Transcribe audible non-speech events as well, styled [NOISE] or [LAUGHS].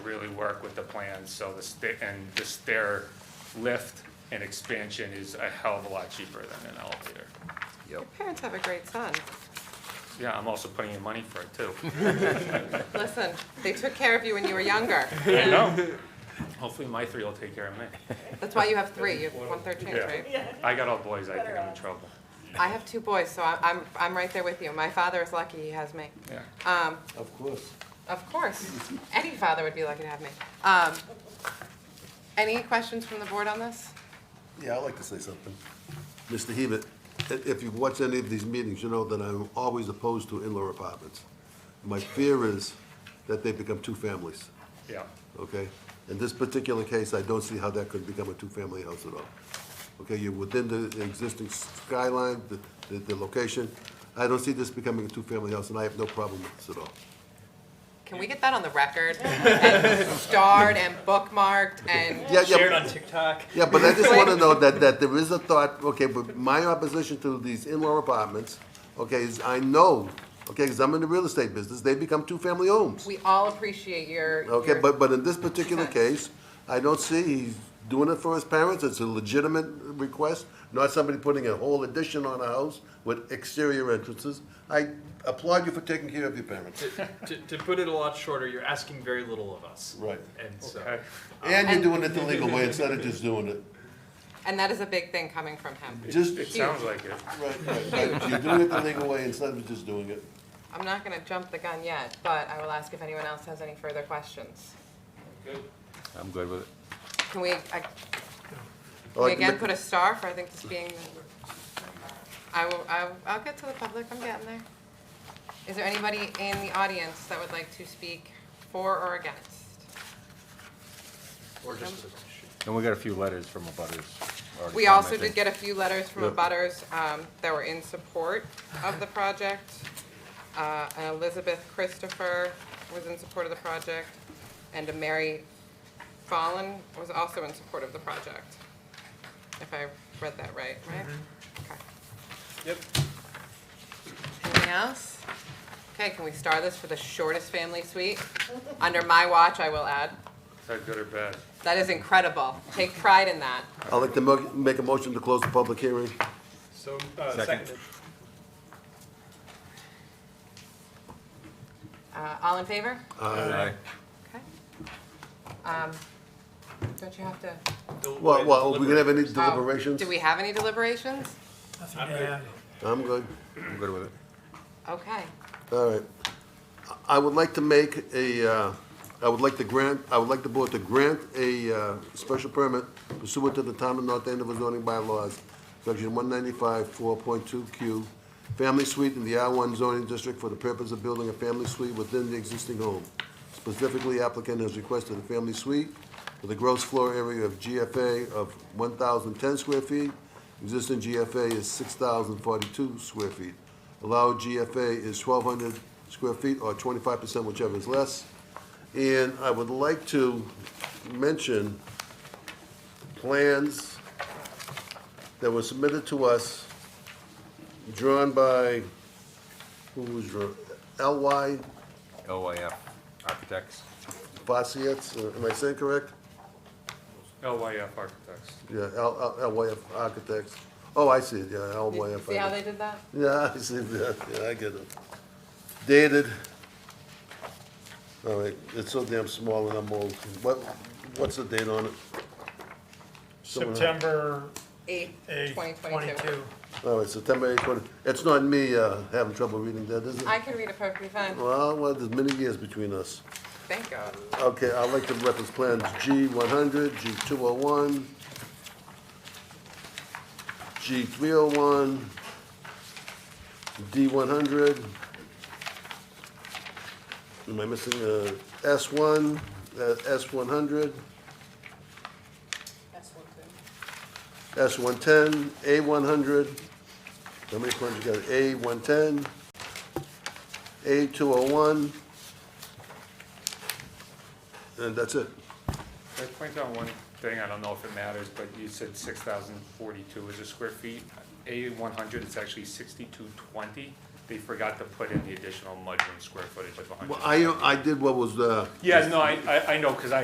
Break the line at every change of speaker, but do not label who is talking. work with the plans, so the, sta- and the stair lift and expansion is a hell of a lot cheaper than an elevator.
Yep.
Parents have a great son.
Yeah, I'm also putting in money for it too.
Listen, they took care of you when you were younger.
[LAUGHS] I know. Hopefully my three will take care of me.
That's why you have three. You have one third chance, right?
Yeah, I got all boys, I think I'm in trouble.
I have two boys, so I- I'm, I'm right there with you. My father is lucky he has me.
Yeah.
Um,
Of course.
of course, any father would be lucky to have me. Um, any questions from the board on this?
Yeah, I'd like to say something. Mr. Hebert, i- if you've watched any of these meetings, you know that I'm always opposed to in-law apartments. My fear is that they become two families,
Yeah,
okay? In this particular case, I don't see how that could become a two-family house at all. Okay, you're within the existing skyline, the, the, the location. I don't see this becoming a two-family house, and I have no problem with this at all.
Can we get that on the record? And starred and bookmarked and,
Yeah, yeah,
Shared on TikTok.
Yeah, but I just want to know that, that there is a thought, okay, but my opposition to these in-law apartments, okay, is I know, okay, because I'm in the real estate business, they become two-family homes.
we all appreciate your.
Okay,
your-
but, but in this particular case, I don't see he's doing it for his parents, it's a legitimate request, not somebody putting a whole addition on a house with exterior entrances. I applaud you for taking care of your parents,
To, to put it a lot shorter, you're asking very little of us.
Right.
And so.
okay.
and you're doing it the legal way instead of just doing it,
And that is a big thing coming from him.
just,
It sounds like it.
right, right, right. you're doing it the legal way instead of just doing it.
I'm not gonna jump the gun yet, but I will ask if anyone else has any further questions.
I'm good with it.
Can we, uh, can we
Like,
again
ma-
put a star for, I think this being, I will, I'll, I'll get to the public, I'm getting there. Is there anybody in the audience that would like to speak for or against?
Or just.
And we got a few letters from abutters. already
We also
commenting.
did get a few letters from
Yep.
abutters um, that were in support of the project. Uh, and Elizabeth Christopher was in support of the project, and a Mary Fallon was also in support of the project. If I read that right, right? Okay.
Yep.
Anything else? Okay, can we star this for the shortest family suite? Under my watch, I will add.
Is that good or bad?
That is incredible. Take pride in that.
I'd like to mo- make a motion to close the public hearing.
So, uh,
Second.
seconded.
Uh, All in favor?
Aye.
Okay. Um, Don't you have to?
Well, well, we
Deliberate.
gonna have any
oh,
deliberations?
Do we have any deliberations?
I'm good.
I'm good.
I'm good with it.
Okay.
All right. I would like to make a, uh, I would like to grant, I would like the board to grant a uh, special permit pursuant to the town of North Andover zoning bylaws, section one ninety-five, four point two Q, family suite in the R one zoning district for the purpose of building a family suite within the existing home. Specifically, applicant has requested a family suite with a gross floor area of GFA of one thousand ten square feet. Existing GFA is six thousand forty-two square feet. Allowed GFA is twelve hundred square feet or twenty-five percent, whichever is less. And I would like to mention plans that were submitted to us, drawn by, who was drawn? L.Y.
LYF Architects.
Fossietz, uh, am I saying correct?
LYF Architects.
Yeah, L- L- LYF Architects. Oh, I see, it, yeah, LYF.
See how they did that?
Yeah, I see that, yeah, I get it. Dated, all right, it's so damn small and I'm old. What, what's the date on it? Someone-
September
Eight,
8,
twenty
22.
twenty-two.
All right, September 8th, it's not me uh, having trouble reading that, is it?
I can read it perfectly fine.
Well, well, there's many years between us.
Thank God.
Okay, I like the reference plans, G one hundred, G two oh one, G three oh one, D one hundred. Am I missing, uh, S one, uh, S one hundred? S one ten, A one hundred. How many plans you got? A one ten, A two oh one. And that's it.
Can I point out one thing, I don't know if it matters, but you said six thousand forty-two is a square feet. A one hundred, it's actually sixty-two twenty. They forgot to put in the additional mudroom square footage of a
Well,
hundred.
I, I did what was, uh,
Yeah, no, I, I, I know, cause I,